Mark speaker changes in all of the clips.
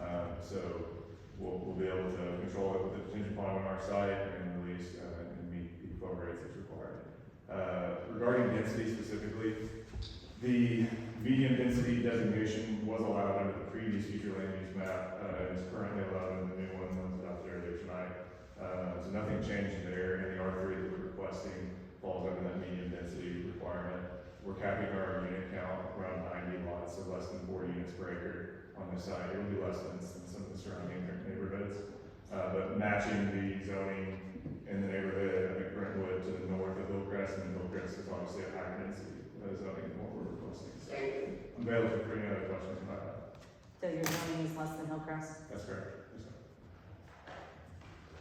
Speaker 1: Um, we'll, we'll be able to control it with the detention pond on our site and release, uh, and meet the flow rates as required. Uh, regarding density specifically, the medium density designation was allowed under the previous future land use map, uh, and is currently allowed in the new one that's out there there tonight. Uh, so nothing changed there, and the R three that we're requesting falls under that medium density requirement. We're capping our unit count around ninety lots, so less than four units per acre on this side, it would be less than some some of the surrounding neighborhoods. Uh, but matching the zoning in the neighborhood, I think Brentwood to the north of Hillcrest, and Hillcrest is obviously a higher density uh, zoning than what we're requesting. So I'm available for any other questions about that.
Speaker 2: So your zoning is less than Hillcrest?
Speaker 1: That's correct. Yes, sir.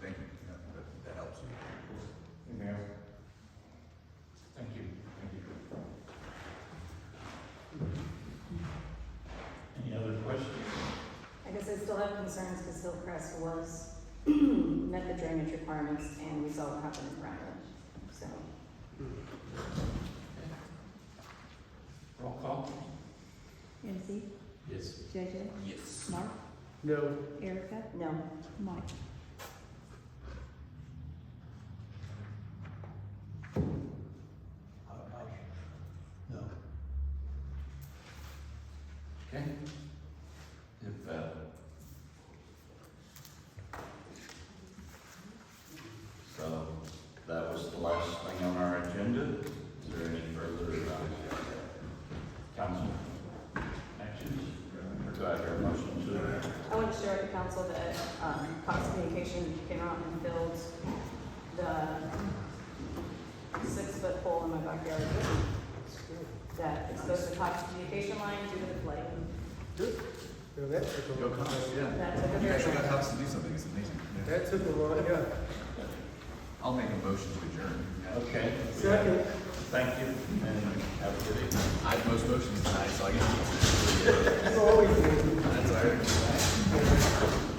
Speaker 3: Thank you, that, that- that helps.
Speaker 1: Anything else?
Speaker 4: Thank you.
Speaker 1: Thank you.
Speaker 4: Any other questions?
Speaker 2: I guess I still have concerns because Hillcrest was, met the drainage requirements and we saw what happened in Brentwood, so.
Speaker 4: Roll call?
Speaker 5: MC,
Speaker 4: Yes.
Speaker 5: JJ,
Speaker 3: Yes.
Speaker 5: Mark,
Speaker 6: No.
Speaker 5: Erica,
Speaker 2: No,
Speaker 5: Mike.
Speaker 4: No. Okay. If, uh,
Speaker 3: So, that was the last thing on our agenda. Is there any further, uh, council
Speaker 4: actions?
Speaker 3: Do I hear a motion to,
Speaker 2: I want to share with the council that, um, Cox Communication came out and filled the six-foot hole in my backyard that exposed the Cox Communication line due to the flooding.
Speaker 6: No, that took a
Speaker 7: Go
Speaker 6: long time.
Speaker 7: Cox, yeah.
Speaker 2: That took a
Speaker 7: You
Speaker 2: very
Speaker 7: actually
Speaker 2: long
Speaker 7: got
Speaker 2: time.
Speaker 7: Cox to do something, it's amazing. Yeah.
Speaker 6: That took a long, yeah.
Speaker 7: I'll make a motion to adjourn. Yeah.
Speaker 4: Okay.
Speaker 6: Second.
Speaker 4: Thank you and have a good evening.
Speaker 7: I have most motions tonight, so I get to.
Speaker 6: You always do.
Speaker 7: That's all right.